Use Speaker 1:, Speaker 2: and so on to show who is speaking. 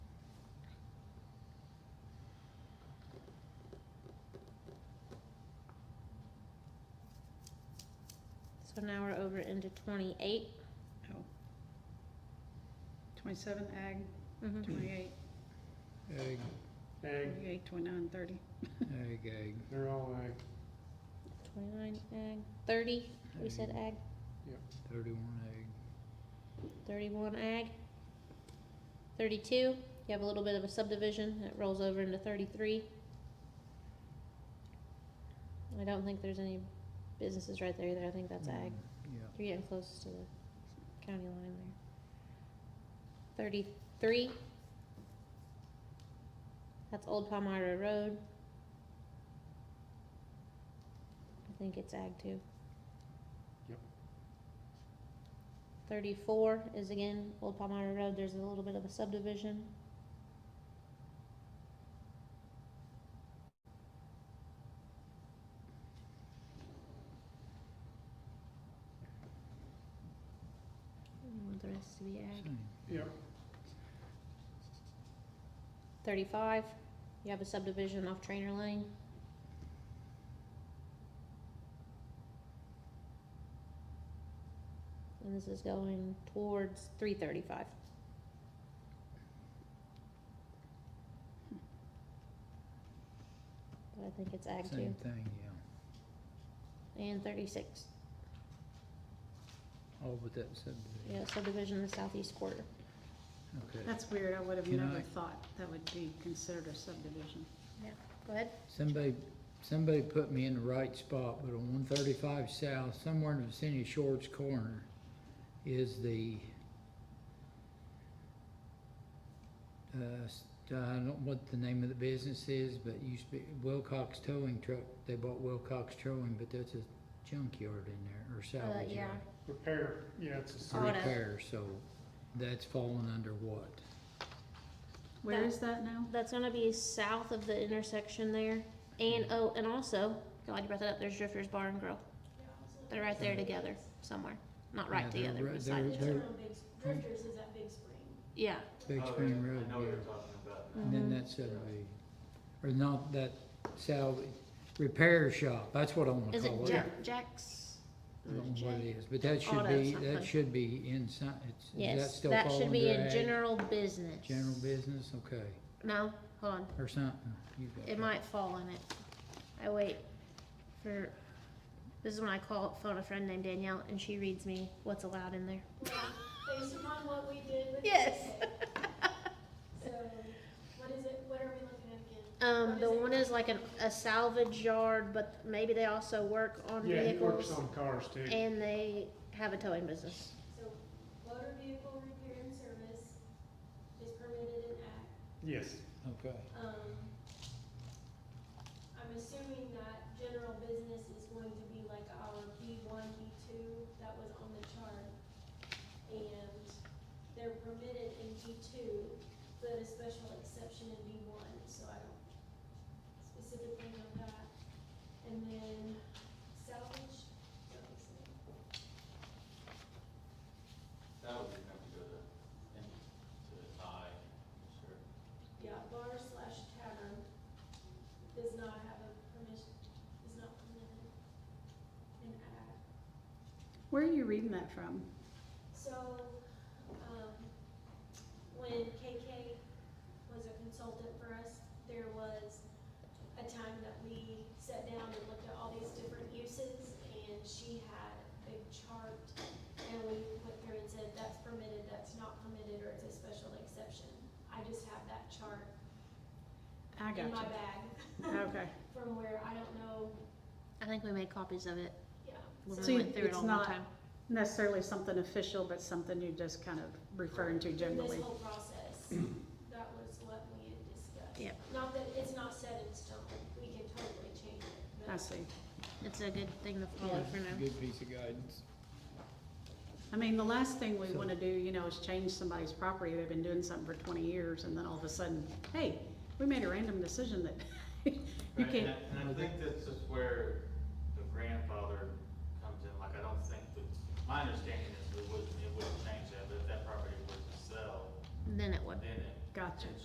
Speaker 1: an hour over into twenty-eight.
Speaker 2: Oh. Twenty-seven ag,
Speaker 1: Mhm.
Speaker 3: Mm-hmm.
Speaker 2: twenty-eight,
Speaker 3: Egg,
Speaker 4: Egg,
Speaker 2: twenty-eight, twenty-nine, thirty.
Speaker 3: egg, egg.
Speaker 4: they're all egg.
Speaker 1: Twenty-nine ag, thirty, we said ag,
Speaker 3: Thirty-one egg.
Speaker 1: thirty-one ag. Thirty-two, you have a little bit of a subdivision that rolls over into thirty-three. I don't think there's any businesses right there either, I think that's ag.
Speaker 3: Mm, Yeah.
Speaker 1: You're getting close to the county line there. Thirty-three. That's Old Palmyra Road. I think it's ag two.
Speaker 4: Yep.
Speaker 1: Thirty-four is again Old Palmyra Road, there's a little bit of a subdivision. I want the rest to be ag.
Speaker 3: Same.
Speaker 4: Yep,
Speaker 1: Thirty-five, you have a subdivision off Trainer Lane. And this is going towards three thirty-five. But I think it's ag two,
Speaker 3: Same thing, yeah.
Speaker 1: and thirty-six,
Speaker 3: All but that subdivision.
Speaker 1: yeah, subdivision in the southeast quarter.
Speaker 3: Okay.
Speaker 2: That's weird, I would have
Speaker 3: Can
Speaker 2: never
Speaker 3: I-
Speaker 2: thought that would be considered a subdivision.
Speaker 1: Go ahead.
Speaker 3: Somebody, somebody put me in the right spot, but on one thirty-five south, somewhere in the vicinity of Shorts Corner is the uh, s- I don't know what the name of the business is, but it used to be Wilcox Towing Truck. They bought Wilcox Towing, but that's a junkyard in there, or salvage
Speaker 1: yeah.
Speaker 3: yard.
Speaker 4: repair, yeah, it's a
Speaker 3: a
Speaker 1: Auto.
Speaker 4: sort
Speaker 3: repair, so that's falling under what?
Speaker 2: Where
Speaker 1: That-
Speaker 2: is that now?
Speaker 1: That's gonna be south of the intersection there, and, oh, and also, glad you brought that up, there's Drifter's Bar and Grill. They're right there together, somewhere, not right
Speaker 3: Yeah, they're
Speaker 1: together,
Speaker 3: right-
Speaker 1: but beside
Speaker 3: they're-
Speaker 1: each
Speaker 3: they're
Speaker 1: other,
Speaker 5: Around Big, Drifters is at Big Spring.
Speaker 1: yeah.
Speaker 3: Big Spring Road,
Speaker 6: Oh, I know what
Speaker 3: yeah.
Speaker 6: you're talking
Speaker 1: Mm-hmm.
Speaker 6: about.
Speaker 3: And then that's a, or not that salvage, repair shop, that's what I wanna
Speaker 1: Is
Speaker 3: call
Speaker 1: it
Speaker 3: it.
Speaker 1: Jack, Jack's?
Speaker 3: I don't know what it is, but that should
Speaker 1: Auto
Speaker 3: be,
Speaker 1: something.
Speaker 3: that should be inside, it's, does that
Speaker 1: Yes,
Speaker 3: still
Speaker 1: that
Speaker 3: fall
Speaker 1: should be
Speaker 3: under
Speaker 1: in
Speaker 3: ag?
Speaker 1: general business.
Speaker 3: General business, okay,
Speaker 1: No, hold on,
Speaker 3: or something, you got
Speaker 1: it
Speaker 3: that.
Speaker 1: might fall in it, I wait for, this is when I call, phone a friend named Danielle, and she reads me what's allowed in there.
Speaker 5: Well, Based upon what we did with.
Speaker 1: Yes.
Speaker 5: So, what is it, what are we looking at
Speaker 1: Um,
Speaker 5: again? What
Speaker 1: the
Speaker 5: is it?
Speaker 1: one is like an, a salvage yard, but maybe they also work on
Speaker 4: of, yeah, he works
Speaker 1: vehicles
Speaker 4: on cars too.
Speaker 1: and they have a towing business.
Speaker 5: So, motor vehicle repair and service is permitted in Act.
Speaker 4: Yes,
Speaker 3: Okay,
Speaker 5: Um, I'm assuming that general business is going to be like our B one, B two that was on the chart. And they're permitted in B two, but a special exception in B one, so I don't specifically know that. And then salvage, that was it.
Speaker 6: That would have to go to, to I, sure.
Speaker 5: yeah, bar slash tavern does not have a permission, is not permitted in ag.
Speaker 2: Where are you reading that from?
Speaker 5: So, um, when KK was a consultant for us, there was a time that we sat down and looked at all these different uses, and she had a big chart, and we went through and said, that's permitted, that's not permitted, or it's a special exception. I just have that chart
Speaker 2: I
Speaker 5: in my
Speaker 2: got you.
Speaker 5: bag
Speaker 2: Okay.
Speaker 5: from where, I don't know,
Speaker 1: I think we made copies of it
Speaker 5: yeah.
Speaker 1: when
Speaker 2: So
Speaker 1: we
Speaker 2: you-
Speaker 1: went through it
Speaker 2: it's
Speaker 1: all one
Speaker 2: not-
Speaker 1: time.
Speaker 2: Necessarily something official, but something you just kind of referring to generally.
Speaker 5: This whole process, that was what we had discussed.
Speaker 1: Yep.
Speaker 5: Not that, it's not set in stone, we can totally change it,
Speaker 2: I
Speaker 5: but
Speaker 2: see.
Speaker 1: It's a good thing to follow for now.
Speaker 3: good piece of guidance.
Speaker 2: I mean, the last thing we
Speaker 3: So-
Speaker 2: wanna do, you know, is change somebody's property. They've been doing something for twenty years and then all of a sudden, hey, we made a random decision that you
Speaker 6: Right, and
Speaker 2: can't.
Speaker 6: I- And I think this is where the grandfather comes in, like, I don't think that, my understanding is it wouldn't, it wouldn't change that, but if that property was to sell,
Speaker 1: Then it would.
Speaker 6: then it.
Speaker 2: Gotcha.
Speaker 6: it